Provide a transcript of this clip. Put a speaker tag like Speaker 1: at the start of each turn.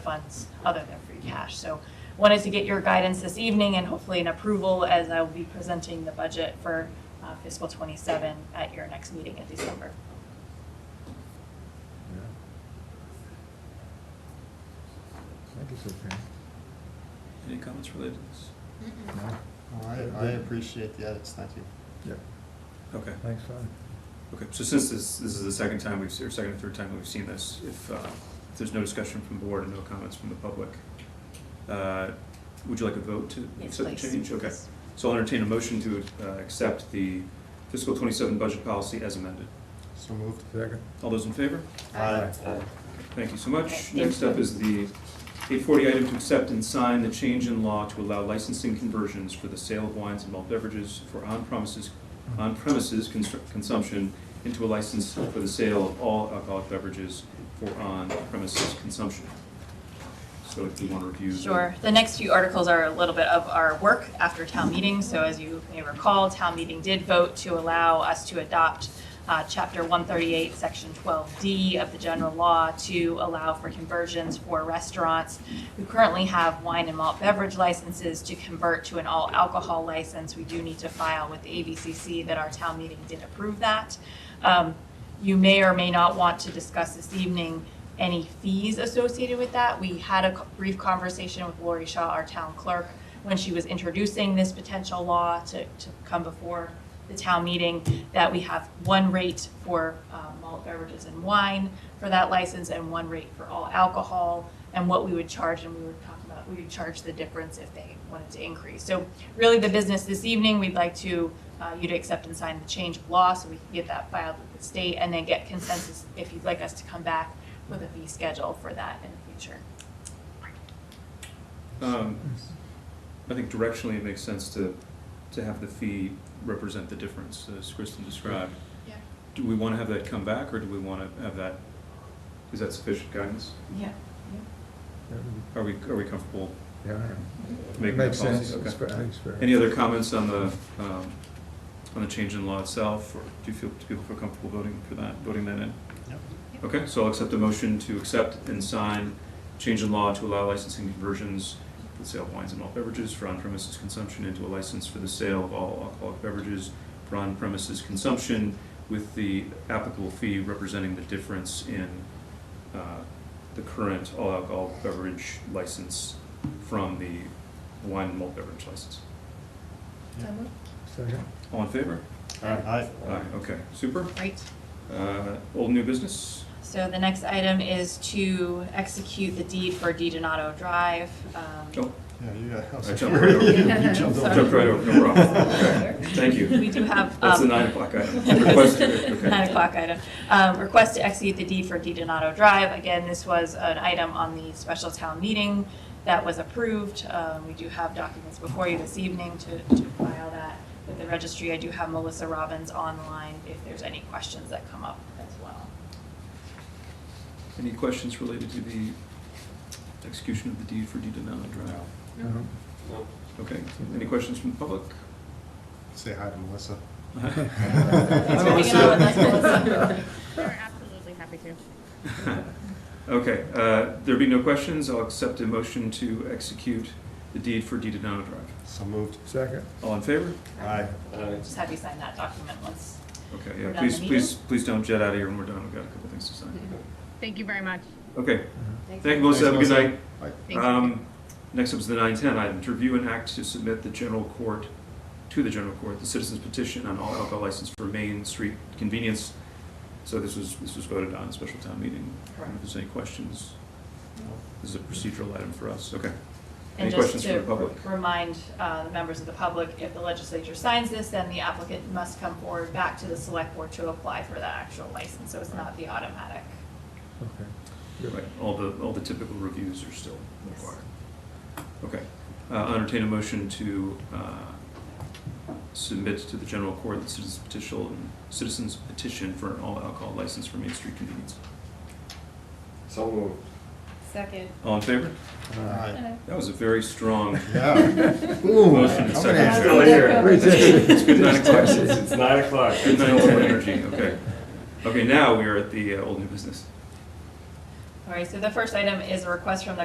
Speaker 1: funds other than free cash. So wanted to get your guidance this evening and hopefully an approval as I will be presenting the budget for uh, fiscal '27 at your next meeting in December.
Speaker 2: I guess okay.
Speaker 3: Any comments related to this?
Speaker 2: No?
Speaker 4: Well, I, I appreciate the edits, thank you.
Speaker 2: Yep.
Speaker 3: Okay,
Speaker 2: Thanks, Fran.
Speaker 3: okay, so since this, this is the second time we've, se- or second or third time that we've seen this, if, uh, if there's no discussion from the board and no comments from the public, uh, would you like a vote to
Speaker 1: Yes,
Speaker 3: accept the
Speaker 1: please.
Speaker 3: change? Okay,
Speaker 1: Yes.
Speaker 3: so I'll entertain a motion to, uh, accept the fiscal twenty-seven budget policy as amended.
Speaker 4: So moved.
Speaker 2: Second?
Speaker 3: All those in favor?
Speaker 2: Aye.
Speaker 3: Thank you so
Speaker 1: Thank
Speaker 3: much.
Speaker 1: you.
Speaker 3: Next up is the eight forty item to accept and sign the change in law to allow licensing conversions for the sale of wines and malt beverages for on-premises, on-premises cons- consumption into a license for the sale of all alcoholic beverages for on-premises consumption. So if you want to review. the-
Speaker 1: Sure. The next few articles are a little bit of our work after town meeting. So as you may recall, town meeting did vote to allow us to adopt uh, Chapter 138, Section 12D of the general law to allow for conversions for restaurants who currently have wine and malt beverage licenses to convert to an all alcohol license. We do need to file with the ABCC that our town meeting did approve that. Um, You may or may not want to discuss this evening any fees associated with that. We had a co- brief conversation with Lori Shaw, our town clerk, when she was introducing this potential law to, to come before the town meeting, that we have one rate for uh, malt beverages and wine for that license and one rate for all alcohol, and what we would charge, and we were talking about, we would charge the difference if they wanted to increase. So really, the business this evening, we'd like to, uh, you to accept and sign the change of law, so we can get that filed with the state, and then get consensus if you'd like us to come back with a fee schedule for that in the future.
Speaker 3: Um, I think directionally it makes sense to, to have the fee represent the difference, as Kristen described.
Speaker 1: Yeah.
Speaker 3: Do we want to have that come back, or do we want to have that, is that sufficient guidance?
Speaker 1: Yeah.
Speaker 3: Are we, are we comfortable
Speaker 2: Yeah, I know.
Speaker 3: making that
Speaker 2: Makes sense.
Speaker 3: policy?
Speaker 2: It's
Speaker 3: Okay.
Speaker 2: fair- Makes sense.
Speaker 3: Any other comments on the, um, on the change in law itself, or do you feel, do people feel comfortable voting for that, voting that in?
Speaker 4: Yep.
Speaker 3: Okay, so I'll accept a motion to accept and sign change in law to allow licensing conversions for the sale of wines and malt beverages for on-premises consumption into a license for the sale of all alcoholic beverages for on-premises consumption with the applicable fee representing the difference in uh, the current all alcohol beverage license from the wine and malt beverage license.
Speaker 2: Second?
Speaker 3: All in favor?
Speaker 4: Aye.
Speaker 3: Aye, okay, super.
Speaker 1: Great.
Speaker 3: Uh, Old new business?
Speaker 1: So the next item is to execute the deed for Di Donato Drive. um,
Speaker 3: Oh,
Speaker 4: Yeah, you got.
Speaker 3: I jumped right over.
Speaker 4: You jumped
Speaker 1: Sorry.
Speaker 3: jumped right over, no problem. Okay, Thank
Speaker 1: We
Speaker 3: you.
Speaker 1: do have.
Speaker 3: That's the
Speaker 1: um,
Speaker 3: nine o'clock item. Request,
Speaker 1: Nine
Speaker 3: okay.
Speaker 1: o'clock item. Um, Request to execute the deed for Di Donato Drive. Again, this was an item on the special town meeting that was approved. Um, We do have documents before you this evening to to file that with the registry. I do have Melissa Robbins online if there's any questions that come up as well.
Speaker 3: Any questions related to the execution of the deed for deed Donato Drive?
Speaker 2: No.
Speaker 3: Okay, any questions from the public?
Speaker 4: Say hi to Melissa.
Speaker 1: Thanks for hanging out with us, Melissa.
Speaker 5: Sure, absolutely happy to.
Speaker 3: Okay, uh, there be no questions, I'll accept a motion to execute the deed for deed Donato Drive.
Speaker 4: So moved.
Speaker 2: Second?
Speaker 3: All in favor?
Speaker 4: Aye.
Speaker 1: Just have you sign that document once.
Speaker 3: Okay,
Speaker 1: We're
Speaker 3: yeah,
Speaker 1: done the
Speaker 3: please, please, please don't jet out of here when we're done, we've got a couple things to sign.
Speaker 5: Thank you very much.
Speaker 3: Okay,
Speaker 2: Uh-huh.
Speaker 3: thank you, Melissa, have a good night.
Speaker 4: Aye.
Speaker 5: Thank you.
Speaker 3: Um, Next up is the 910 item, to review and act to submit the general court, to the general court, the citizens petition on all alcohol license for Main Street convenience. So this was, this was voted on at special town meeting. I don't know If there's any questions, this is a procedural item for us, okay. Any
Speaker 1: And just
Speaker 3: questions from
Speaker 1: to
Speaker 3: the public?
Speaker 1: remind uh, the members of the public, if the legislature signs this, then the applicant must come forward back to the select board to apply for the actual license, so it's not the automatic.
Speaker 2: Okay.
Speaker 3: Right, all the, all the typical reviews are still
Speaker 1: Yes.
Speaker 3: required. Okay, Uh, I'll entertain a motion to uh, submit to the general court the citizens petition, citizens petition for an all alcohol license for Main Street convenience.
Speaker 6: So moved.
Speaker 5: Second.
Speaker 3: All in favor?
Speaker 4: Aye.
Speaker 3: That was a very strong,
Speaker 4: Yeah. Ooh,
Speaker 3: Motion
Speaker 4: I'm
Speaker 3: and
Speaker 4: gonna
Speaker 3: second.
Speaker 4: have
Speaker 6: Still
Speaker 4: to-
Speaker 6: here.
Speaker 2: Wait,
Speaker 3: it's good nine o'clock,
Speaker 6: It's nine o'clock.
Speaker 3: good nine o'clock energy, okay. Okay, now we are at the uh, old new business.
Speaker 1: All right, so the first item is a request from the